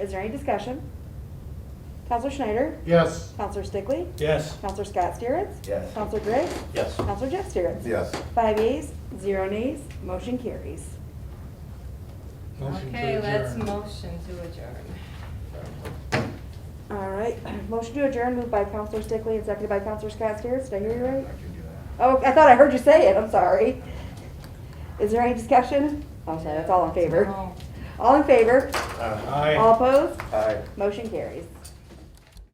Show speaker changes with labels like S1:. S1: Is there any discussion? Counselor Schneider?
S2: Yes.
S1: Counselor Stickley?
S3: Yes.
S1: Counselor Scott Stieretz?
S4: Yes.
S1: Counselor Griggs?
S3: Yes.
S1: Counselor Jeff Stieretz?
S4: Yes.
S1: Five yeas, zero nays, motion carries.
S3: Motion to
S5: Okay, let's
S3: adjourn.
S5: motion to adjourn.
S1: All right, motion to adjourn moved by Counselor Stickley and seconded by Counselor Scott Stieretz. Did I hear you
S4: I
S1: right?
S4: can do that.
S1: Oh, I thought I heard you say it, I'm sorry. Is there any discussion? Oh, sorry, that's all in favor.
S5: No.
S1: All in favor?
S4: Uh,
S3: Aye.
S1: All opposed?
S4: Aye.
S1: Motion carries.